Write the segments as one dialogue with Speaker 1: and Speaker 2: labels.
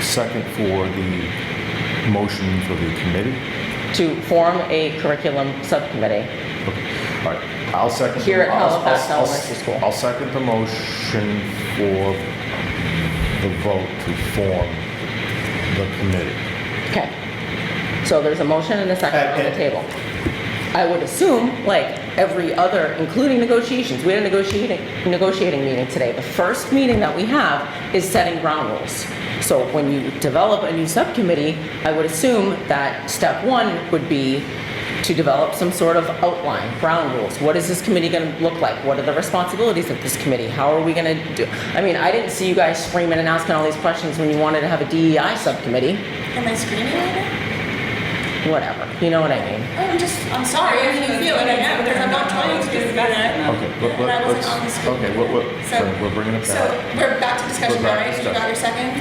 Speaker 1: second for the motion for the committee?
Speaker 2: to form a curriculum subcommittee.
Speaker 1: All right, I'll second. the-
Speaker 2: Here at
Speaker 1: I'll- I'll-
Speaker 2: Halifax
Speaker 1: I'll-
Speaker 2: Elementary School.
Speaker 1: I'll second the motion for the vote to form the committee.
Speaker 2: Okay. So there's a motion and a second on the
Speaker 1: Okay.
Speaker 2: table. I would assume, like every other, including negotiations, we had a negotiating, negotiating meeting today. The first meeting that we have is setting ground rules. So when you develop a new subcommittee, I would assume that step one would be to develop some sort of outline, ground rules. What is this committee going to look like? What are the responsibilities of this committee? How are we going to do? I mean, I didn't see you guys screaming and asking all these questions when you wanted to have a DEI subcommittee
Speaker 3: Am I screaming at it?
Speaker 2: whatever. You know what I mean?
Speaker 3: Oh, I'm just, I'm sorry, I didn't feel it right now because I'm not trying to do that.
Speaker 1: Okay, let-
Speaker 3: And I
Speaker 1: let-
Speaker 3: wasn't
Speaker 1: let's,
Speaker 3: on the screen.
Speaker 1: okay, what, what,
Speaker 3: So-
Speaker 1: sorry, we're bringing it
Speaker 3: So
Speaker 1: back.
Speaker 3: we're back to discussion
Speaker 1: We're
Speaker 3: now,
Speaker 1: back
Speaker 3: right?
Speaker 1: to
Speaker 3: You got your second?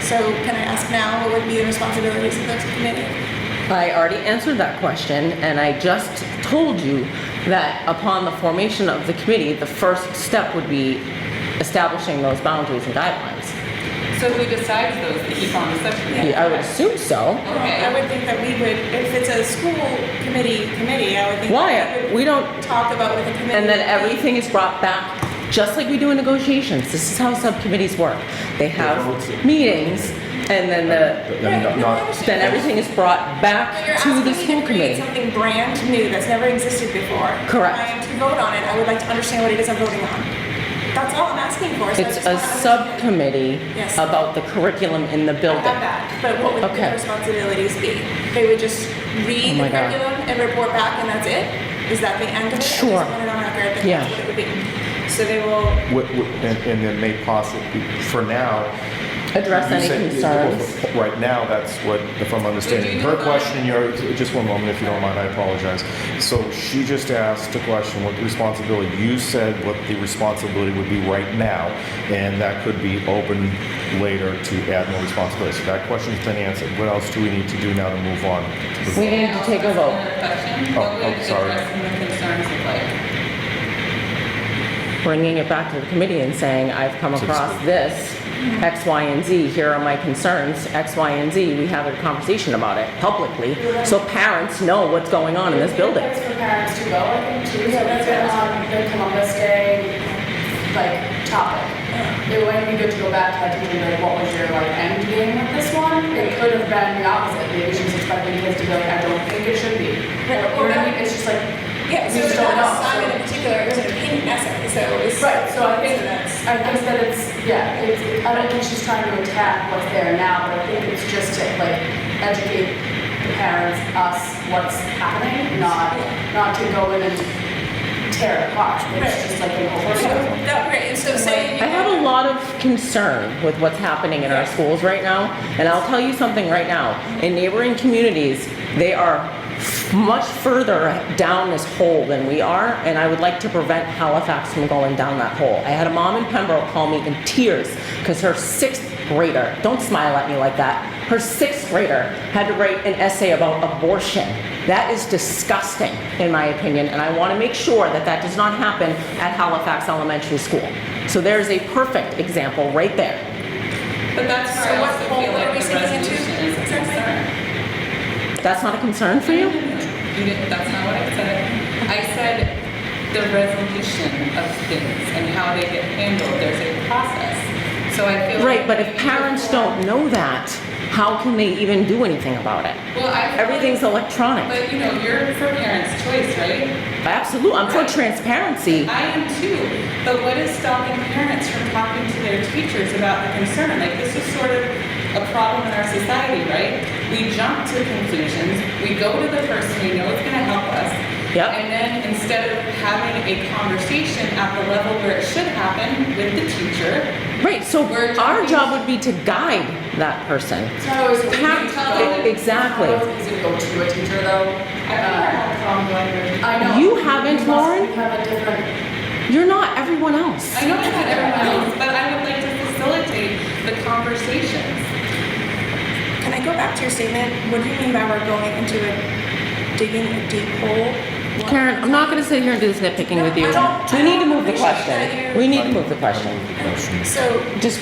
Speaker 3: So can I ask now what would be the responsibilities of this committee?
Speaker 2: I already answered that question, and I just told you that upon the formation of the committee, the first step would be establishing those boundaries and guidelines.
Speaker 4: So who decides those that keep on the subcommittee?
Speaker 2: I would assume so.
Speaker 4: Okay.
Speaker 3: I would think that we would, if it's a school committee committee, I would think. that
Speaker 2: Why? We don't,
Speaker 3: would Talk about with the committee.
Speaker 2: and then
Speaker 3: would be.
Speaker 2: everything is brought back, just like we do in negotiations. This is how subcommittees work. They have meetings, and then the,
Speaker 1: Then not-
Speaker 3: Right, no, I
Speaker 1: not-
Speaker 2: then
Speaker 3: understand.
Speaker 2: everything is brought
Speaker 3: But
Speaker 2: back
Speaker 3: you're
Speaker 2: to
Speaker 3: asking
Speaker 2: the
Speaker 3: me
Speaker 2: school
Speaker 3: to create
Speaker 2: committee.
Speaker 3: something brand new that's never existed before.
Speaker 2: Correct.
Speaker 3: I am to vote on it, I would like to understand what it is I'm voting on. That's all I'm asking for. so I
Speaker 2: It's
Speaker 3: just
Speaker 2: a
Speaker 3: wanna understand.
Speaker 2: subcommittee
Speaker 3: Yes.
Speaker 2: about the curriculum in the
Speaker 3: I
Speaker 2: building.
Speaker 3: have that, but what would
Speaker 2: Okay.
Speaker 3: the responsibilities be? They would just
Speaker 2: Oh
Speaker 3: read
Speaker 2: my
Speaker 3: the
Speaker 2: God.
Speaker 3: curriculum and report back, and that's it? Is that the end of it?
Speaker 2: Sure.
Speaker 3: I just want it on record that
Speaker 2: Yeah.
Speaker 3: that's what it would be. So they will.
Speaker 1: What- what- And, and then may possibly, for now.
Speaker 2: address
Speaker 1: you
Speaker 2: any
Speaker 1: said-
Speaker 2: concerns.
Speaker 1: Right now, that's what, if I'm understanding
Speaker 4: Would you
Speaker 1: her
Speaker 4: define-
Speaker 1: question, you're, just one moment, if you don't mind, I apologize. So she just asked a question, what the responsibility, you said what the responsibility would be right now, and that could be open later to add more responsibility. So that question's been answered. What else do we need to do now to move on? to the
Speaker 2: We need to take a vote.
Speaker 4: Another question.
Speaker 1: Oh,
Speaker 4: What would
Speaker 1: oh, sorry.
Speaker 4: addressing the concerns look like?
Speaker 2: Bringing it back to the committee and saying, I've come
Speaker 1: To the
Speaker 2: across
Speaker 1: school.
Speaker 2: this, X, Y, and Z, here are my concerns, X, Y, and Z, we have a conversation about it publicly, so parents know what's going on in this building.
Speaker 5: It's for parents to go, I think, too, so that's been on the Columbus Day, like, topic. It might be good to go back to that, to be like, what was your, like, end game with this one? It could have been the opposite, maybe she's expecting kids to be like, I don't think it should be.
Speaker 3: Right,
Speaker 5: Or,
Speaker 3: or-
Speaker 5: I mean, it's just like,
Speaker 3: Yeah, so
Speaker 5: We
Speaker 3: it's
Speaker 5: just
Speaker 3: not
Speaker 5: don't
Speaker 3: an
Speaker 5: know,
Speaker 3: assignment
Speaker 5: so-
Speaker 3: in particular, it was an opinion essay, so it's.
Speaker 5: Right, so I think,
Speaker 3: so that's-
Speaker 5: I think that it's, yeah, it's, I don't think she's trying to attack what's there now, but I think it's just to, like, educate the parents, us, what's happening, not, not to go in and tear it apart,
Speaker 3: Right.
Speaker 5: it's just like an
Speaker 3: So
Speaker 5: overview.
Speaker 3: That, right, and so saying.
Speaker 2: I have a lot of concern with what's happening in our schools right now, and I'll tell you something right now. In neighboring communities, they are f- much further down this hole than we are, and I would like to prevent Halifax from going down that hole. I had a mom in Pembroke call me in tears because her sixth grader, don't smile at me like that, her sixth grader had to write an essay about abortion. That is disgusting, in my opinion, and I want to make sure that that does not happen at Halifax Elementary School. So there's a perfect example right there.
Speaker 4: But that's
Speaker 3: So
Speaker 4: where I
Speaker 3: what
Speaker 4: also
Speaker 3: hole
Speaker 4: feel
Speaker 3: are
Speaker 4: like
Speaker 3: we
Speaker 4: the
Speaker 3: sinking into?
Speaker 4: resolution is a
Speaker 3: Exactly.
Speaker 4: concern.
Speaker 2: That's not a concern for you?
Speaker 4: You didn't, that's not what I said. I said the resolution of things and how they get handled, there's a process. So I feel.
Speaker 2: Right,
Speaker 4: like
Speaker 2: but
Speaker 4: we
Speaker 2: if
Speaker 4: need to
Speaker 2: parents
Speaker 4: form-
Speaker 2: don't know that, how can they even do anything about it?
Speaker 4: Well, I. feel like-
Speaker 2: Everything's electronic.
Speaker 4: But you know, you're for parents' choice, right?
Speaker 2: Absolutely, I'm for transparency.
Speaker 4: I am too, but what is stopping parents from talking to their teachers about the concern? Like, this is sort of a problem in our society, right? We jump to conclusions, we go to the person we know is gonna help us.
Speaker 2: Yep.
Speaker 4: And then instead of having a conversation at the level where it should happen with the teacher,
Speaker 2: Right, so
Speaker 4: We're
Speaker 2: our
Speaker 4: talking-
Speaker 2: job would be to guide that person.
Speaker 5: It's not always easy to
Speaker 2: Parent-
Speaker 5: go-
Speaker 2: e- exactly.
Speaker 5: It's not always easy to go to a teacher, though.
Speaker 4: I think I
Speaker 5: Uh,
Speaker 4: have a problem going there.
Speaker 5: I know.
Speaker 2: You haven't,
Speaker 5: We must-
Speaker 2: Lauren?
Speaker 5: We have a different,
Speaker 2: You're not everyone else.
Speaker 4: I know it's not everyone else, but I would like to facilitate the conversations.
Speaker 3: Can I go back to your statement? What do you mean by we're going into a, digging a deep hole? What-
Speaker 2: Karen, I'm not gonna sit here and do this nitpicking with you.
Speaker 3: No, I don't-
Speaker 2: We need to move the
Speaker 3: I don't appreciate that
Speaker 2: question.
Speaker 3: you're-
Speaker 2: We need to move the question.
Speaker 1: Question.
Speaker 3: So
Speaker 2: Just